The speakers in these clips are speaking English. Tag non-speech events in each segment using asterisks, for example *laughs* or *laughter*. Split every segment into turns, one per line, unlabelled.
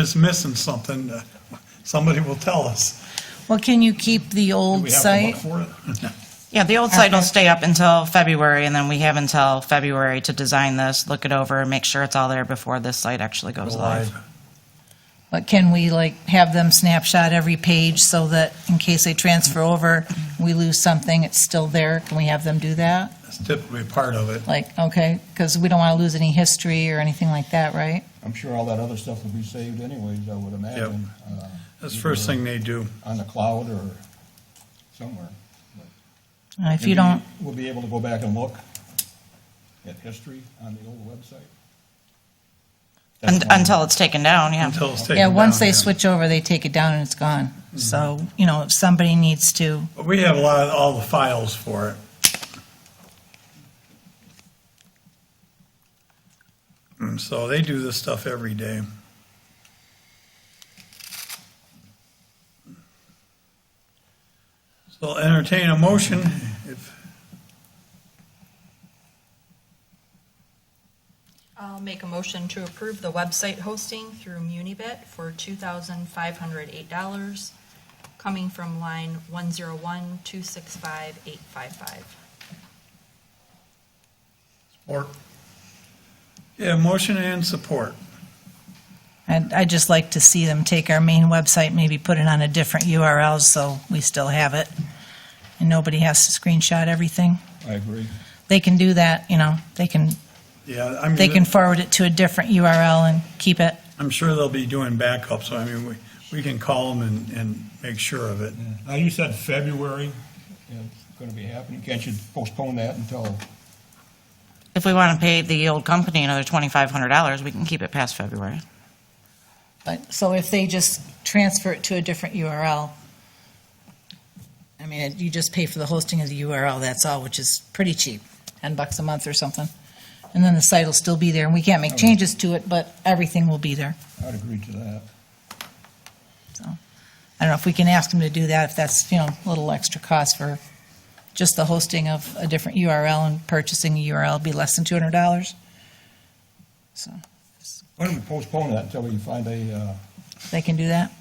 is missing something, uh, somebody will tell us.
Well, can you keep the
Do
old
we have to look
site?
for it? *laughs*
Yeah, the old site will
Okay.
stay up until February, and then we have until February to design this, look it over, make sure it's all there before this site actually goes live.
But can we like have them snapshot every page so that in case they transfer over, we lose something, it's still there? Can we have them do that?
That's typically part of it.
Like, okay, because we don't want to lose any history or anything like that, right?
I'm sure all that other stuff will be saved anyways, I would imagine. uh,
That's the first thing they do.
On the cloud or somewhere.
Uh, If you
Maybe
don't,
We'll be able to go back and look at history on the old website.
Un- Until it's taken down, yeah.
Until it's taken
yeah, once
down,
they
yeah. Mm-hmm.
switch over, they take it down and it's gone. So, you know, if somebody needs to,
But We have a lot of, all the files for it. And Mm, so they do this stuff every day. So I'll entertain a motion if,
I'll make a motion to approve the website hosting through Munibit for $2,508, coming from line 101265855.
or, yeah, motion and support.
I'd, I'd just like to see them take our main website, maybe put it on a different URL so we still have it. And nobody has to screenshot everything.
I agree.
They can do that, you know, they can,
Yeah, I mean.
they can forward it to a different URL and keep it.
I'm sure they'll be doing backup, so I mean, we, we can call them and, and make sure of it.
Now, you said February.
Yeah, It's going to be happening. Can't you postpone that until,
If we want to pay the old company another $2,500, we can keep it past February.
But, so if they just transfer it to a different URL, I mean, you just pay for the hosting of the URL, that's all, which is pretty cheap, 10 bucks a month or something. And then the site will still be there, and we can't make changes to it, but everything will be there.
I'd agree to that.
I don't know if we can ask them to do that, if that's, you know, a little extra cost for just the hosting of a different URL and purchasing a URL would be less than $200. So
Why don't we postpone that until we find a, uh,
they can do that.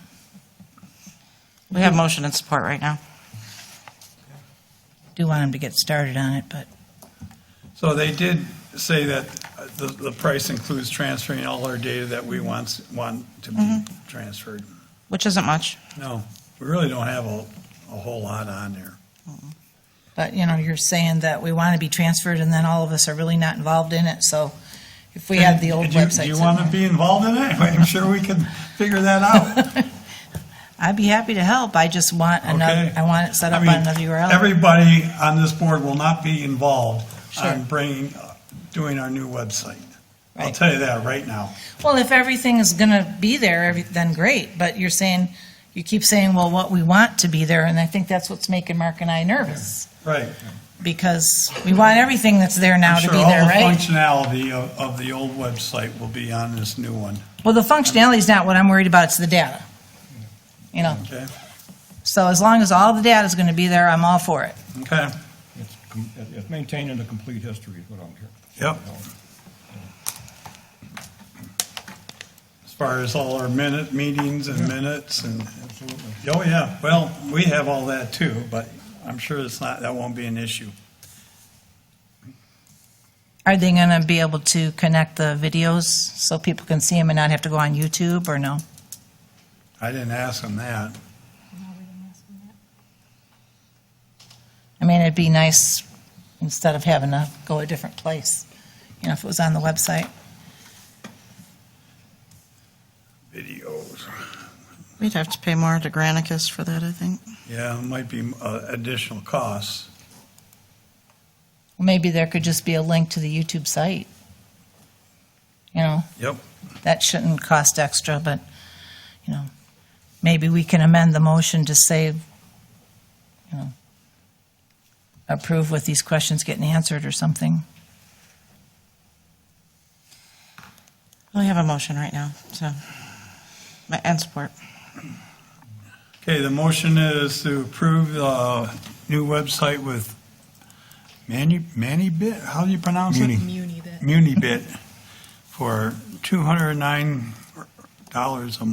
We have motion and support right now.
Do want them to get started on it, but
So they did say that uh, the, the price includes transferring all our data that we want, want to be
Mm-hmm.
transferred.
Which isn't much.
No, we really don't have a, a whole lot on there.
But, you know, you're saying that we want to be transferred, and then all of us are really not involved in it, so if we had the old
Do you-
website.
Do you want to be involved in it? *laughs* I'm sure we can figure that
*laughs*
out.
I'd be happy to help, I just want another,
Okay.
I want it set
I
up on
mean,
another URL.
Everybody on this board will not be involved on
Sure.
bringing, uh, doing our new website. I'll
Right.
tell you that right now.
Well, if everything is going to be there, every- then great, but you're saying, you keep saying, well, what we want to be there, and I think that's what's making Mark and I nervous,
Right.
because we want everything that's there now
I'm
to
sure
be
all
there,
the
right?
functionality of, of the old website will be on this new one,
Well, the functionality is not what I'm worried about, it's the data. You know,
okay?
so as long as all the data is going to be there, I'm all for it.
Okay,
it's com- it's maintaining the complete history is what I'm hearing.
yep. As far as all our minute, meetings and minutes and,
Absolutely.
oh yeah, well, we have all that too, but I'm sure it's not, that won't be an issue.
Are they going to be able to connect the videos so people can see them and not have to go on YouTube or no?
I didn't ask them that.
I mean, it'd be nice instead of having to go a different place, you know, if it was on the website.
Videos,
We'd have to pay more to Granicus for that, I think.
yeah, it might be uh, additional costs.
Maybe there could just be a link to the YouTube site. You know,
Yep.
that shouldn't cost extra, but, you know, maybe we can amend the motion to say, you know, approve with these questions getting answered or something.
We have a motion right now, so, and support.
Okay, the motion is to approve the new website with Manu, Manibit, how do you pronounce it?
Munibit.
Munibit for $209 a